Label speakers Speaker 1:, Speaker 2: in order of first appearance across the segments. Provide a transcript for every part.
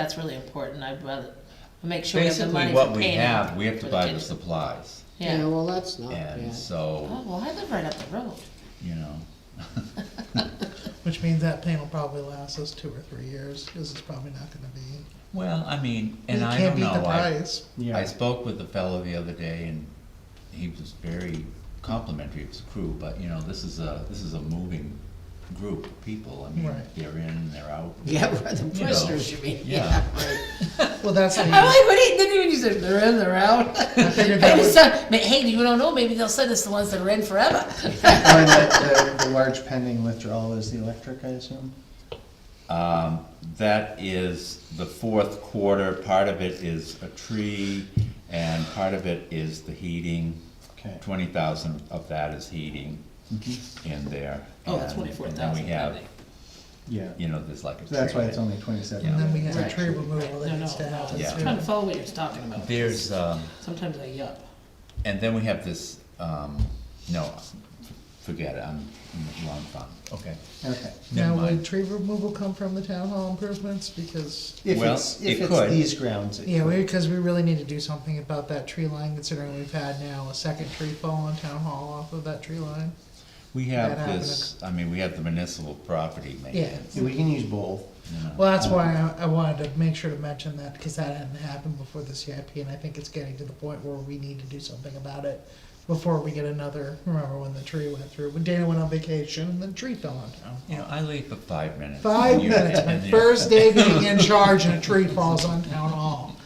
Speaker 1: That's really important, I'd rather, make sure we have the money
Speaker 2: Basically,
Speaker 1: for
Speaker 2: what we
Speaker 1: paying
Speaker 2: have,
Speaker 1: out
Speaker 2: we have
Speaker 1: for
Speaker 2: to
Speaker 1: the
Speaker 2: buy the
Speaker 1: kitchen.
Speaker 2: supplies,
Speaker 3: Yeah,
Speaker 1: Yeah,
Speaker 3: well, that's not, yeah.
Speaker 2: and so,
Speaker 1: oh, well, I live right up the road,
Speaker 2: you know,
Speaker 4: Which means that pain will probably last us two or three years, because it's probably not gonna be.
Speaker 2: well, I mean, and
Speaker 4: you
Speaker 2: I
Speaker 4: can't
Speaker 2: don't
Speaker 4: beat the
Speaker 2: know, I,
Speaker 4: price.
Speaker 2: I
Speaker 5: Yeah,
Speaker 2: spoke with the fellow the other day, and he was very complimentary of his crew, but, you know, this is a, this is a moving group of people, I mean,
Speaker 4: Right.
Speaker 2: they're in, they're out.
Speaker 3: Yeah, we're the
Speaker 2: know,
Speaker 3: prisoners, you mean,
Speaker 2: yeah.
Speaker 3: yeah, right.
Speaker 4: Well, that's the,
Speaker 1: I'm like, what do you, then when you said they're in, they're out.
Speaker 4: I figured
Speaker 1: I
Speaker 4: that
Speaker 1: just
Speaker 4: was,
Speaker 1: thought, ma- hey, you don't know, maybe they'll send us the ones that are in forever.
Speaker 5: and the, the- the large pending withdrawal is the electric, I assume?
Speaker 2: Um, that is the fourth quarter, part of it is a tree, and part of it is the heating.
Speaker 5: Okay. Mm-hmm.
Speaker 2: Twenty thousand of that is heating in there.
Speaker 1: Oh, that's
Speaker 2: and-
Speaker 1: twenty-four
Speaker 2: and then we
Speaker 1: thousand,
Speaker 2: have,
Speaker 5: Yeah,
Speaker 2: You know, there's like a.
Speaker 5: so that's why
Speaker 2: tree.
Speaker 5: it's only
Speaker 2: Yeah.
Speaker 5: twenty-seven.
Speaker 4: and then we have a
Speaker 1: Right.
Speaker 4: tree removal
Speaker 1: No,
Speaker 4: that
Speaker 1: no,
Speaker 4: needs to
Speaker 1: no.
Speaker 4: happen.
Speaker 2: Yeah.
Speaker 1: I'm trying to follow what you're talking about,
Speaker 2: There's, um,
Speaker 1: sometimes I yup.
Speaker 2: and then we have this, um, no, forget it, I'm I'm wrong fund, okay.
Speaker 5: Okay.
Speaker 2: Never
Speaker 4: Now, would
Speaker 2: mind.
Speaker 4: tree removal come from the town hall improvements, because,
Speaker 5: If
Speaker 2: Well,
Speaker 5: it's,
Speaker 2: it
Speaker 5: if
Speaker 2: could.
Speaker 5: it's these grounds, it
Speaker 4: yeah, we,
Speaker 5: could.
Speaker 4: because we really need to do something about that tree line, considering we've had now a second tree fall on town hall off of that tree line.
Speaker 2: We
Speaker 4: That
Speaker 2: have
Speaker 4: happened.
Speaker 2: this, I mean, we have the municipal property maintenance.
Speaker 5: We can use both.
Speaker 2: you know.
Speaker 4: Well, that's why I, I wanted to make sure to mention that, because that hadn't happened before the CIP, and I think it's getting to the point where we need to do something about it before we get another, remember when the tree went through, when Dana went on vacation, and the tree fell on town.
Speaker 2: You know, I leave for five minutes.
Speaker 4: Five
Speaker 2: and you-
Speaker 4: minutes, my
Speaker 2: and you-
Speaker 4: first day being in charge, and a tree falls on town hall.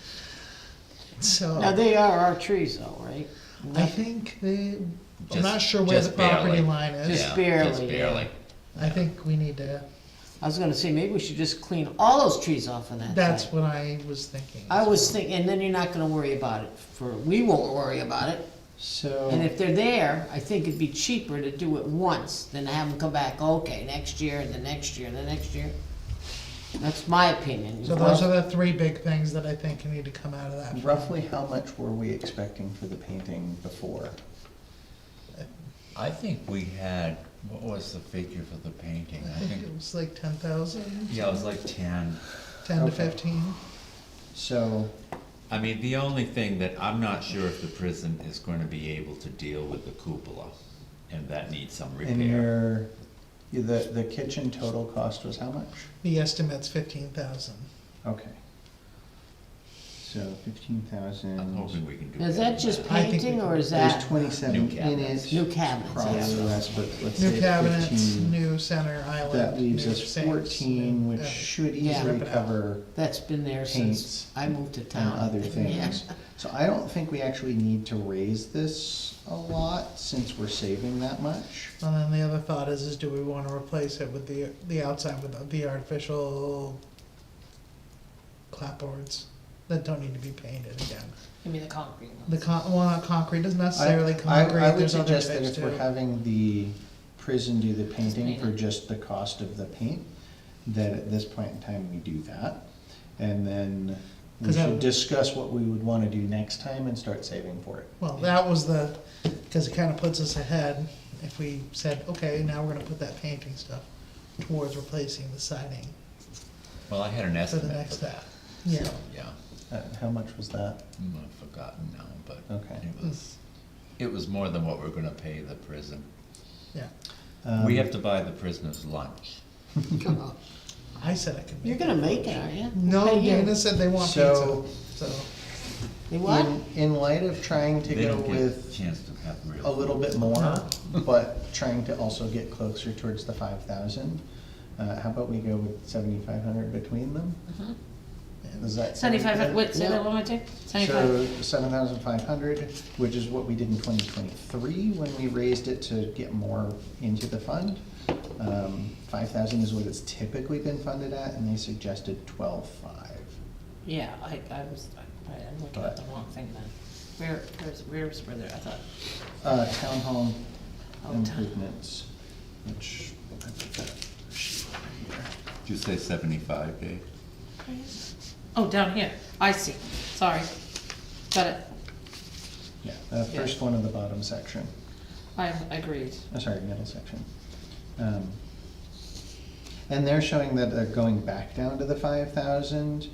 Speaker 3: Now,
Speaker 4: So,
Speaker 3: they are our trees though, right?
Speaker 4: I think they, I'm
Speaker 2: Just-
Speaker 4: not sure where the
Speaker 2: just barely.
Speaker 4: property line is,
Speaker 3: Just
Speaker 2: Yeah,
Speaker 3: barely,
Speaker 2: Just
Speaker 3: yeah.
Speaker 2: barely.
Speaker 4: I think we need to,
Speaker 3: I was gonna say, maybe we should just clean all those trees off of that
Speaker 4: that's
Speaker 3: side.
Speaker 4: what I was thinking.
Speaker 3: I was thinking, and then you're not gonna worry about it for, we won't worry about it. And
Speaker 5: So,
Speaker 3: if they're there, I think it'd be cheaper to do it once than to have them come back, okay, next year, and the next year, and the next year. That's my opinion.
Speaker 4: So those are the three big things that I think need to come out of that.
Speaker 5: uh, roughly how much were we expecting for the painting before?
Speaker 2: I think we had, what was the figure for the painting?
Speaker 4: I
Speaker 2: I
Speaker 4: think it
Speaker 2: think,
Speaker 4: was like ten thousand,
Speaker 2: yeah, it was like ten.
Speaker 4: ten to
Speaker 5: Okay.
Speaker 4: fifteen.
Speaker 5: So,
Speaker 2: I mean, the only thing that, I'm not sure if the prison is gonna be able to deal with the cupola, and that needs some
Speaker 5: in
Speaker 2: repair.
Speaker 5: your, the, the kitchen total cost was how much?
Speaker 4: The estimate's fifteen thousand.
Speaker 5: Okay. So fifteen thousand.
Speaker 2: I'm hoping we can do.
Speaker 3: Is
Speaker 2: better than
Speaker 3: that just
Speaker 4: I think
Speaker 3: painting,
Speaker 4: we-
Speaker 3: or is that?
Speaker 5: There's twenty-seven
Speaker 2: New
Speaker 5: in
Speaker 2: cabinets.
Speaker 5: it.
Speaker 3: New cabinets,
Speaker 5: Probably
Speaker 3: yes.
Speaker 5: less, but let's say
Speaker 4: New cabinets,
Speaker 5: fifteen.
Speaker 4: new center island.
Speaker 5: That leaves
Speaker 4: new
Speaker 5: us
Speaker 4: sinks,
Speaker 5: fourteen,
Speaker 4: new-
Speaker 5: which
Speaker 4: uh,
Speaker 5: should
Speaker 3: Yeah.
Speaker 5: easily
Speaker 4: Rip it out.
Speaker 5: cover
Speaker 3: That's been there
Speaker 5: paints
Speaker 3: since I moved to
Speaker 5: and
Speaker 3: town.
Speaker 5: other
Speaker 3: Yeah.
Speaker 5: things. So I don't think we actually need to raise this a lot since we're saving that much.
Speaker 4: And then the other thought is, is do we wanna replace it with the, the outside with the artificial clapboards that don't need to be painted again?
Speaker 1: Give me the concrete ones.
Speaker 4: The con, well, not concrete, doesn't
Speaker 5: I-
Speaker 4: necessarily
Speaker 5: I-
Speaker 4: concrete,
Speaker 5: I would
Speaker 4: there's other
Speaker 5: suggest that
Speaker 4: types
Speaker 5: if we're
Speaker 4: too.
Speaker 5: having the prison do the painting
Speaker 1: paint
Speaker 5: for
Speaker 1: it.
Speaker 5: just the cost of the paint, that at this point in time, we do that. And then we
Speaker 4: 'Cause that
Speaker 5: should
Speaker 4: would-
Speaker 5: discuss what we would wanna do next time and start saving for it.
Speaker 4: Well, that was the, because it kind of puts us ahead if we said, okay, now we're gonna put that painting stuff towards replacing the siding
Speaker 2: Well, I had an
Speaker 4: for the
Speaker 2: estimate
Speaker 4: next
Speaker 2: for
Speaker 4: step.
Speaker 2: that,
Speaker 4: Yeah,
Speaker 2: yeah,
Speaker 5: Uh, how much was that?
Speaker 2: Mm, I've forgotten now, but
Speaker 5: Okay.
Speaker 2: it was, it was more than what we're gonna pay the prison.
Speaker 4: yeah.
Speaker 2: We
Speaker 5: Um,
Speaker 2: have to buy the prisoners lunch.
Speaker 3: Come on.
Speaker 4: I said I could make.
Speaker 3: You're gonna make it, aren't you?
Speaker 4: No,
Speaker 3: Right here.
Speaker 4: Dana said they want
Speaker 5: So-
Speaker 4: pizza, so,
Speaker 3: They what?
Speaker 5: In, in light of trying to
Speaker 2: They
Speaker 5: go
Speaker 2: don't get a
Speaker 5: with
Speaker 2: chance to have real.
Speaker 5: a little bit more,
Speaker 4: Huh?
Speaker 5: but trying to also get closer towards the five thousand, uh, how about we go with seventy-five hundred between them? Is that? sound
Speaker 1: Mm-hmm. Seventy-five,
Speaker 5: good?
Speaker 1: wait, say that
Speaker 3: Yeah.
Speaker 1: one more time, seventy-five,
Speaker 5: So seven thousand five hundred, which is what we did in twenty twenty-three when we raised it to get more into the fund. Um, five thousand is what it's typically been funded at, and they suggested twelve-five.
Speaker 1: yeah, I, I was, I- I'm looking at the wrong thing then. Where, where's, where's, where there, I thought,
Speaker 5: Uh, town hall
Speaker 1: Oh, town.
Speaker 5: improvements, which I put that sheet over here.
Speaker 2: Did you say seventy-five, Dave?
Speaker 1: oh, down here, I see, sorry, got it,
Speaker 5: Yeah, the first one in the bottom section,
Speaker 1: I agreed.
Speaker 5: oh, sorry, middle section. Um, And they're showing that they're going back down to the five thousand,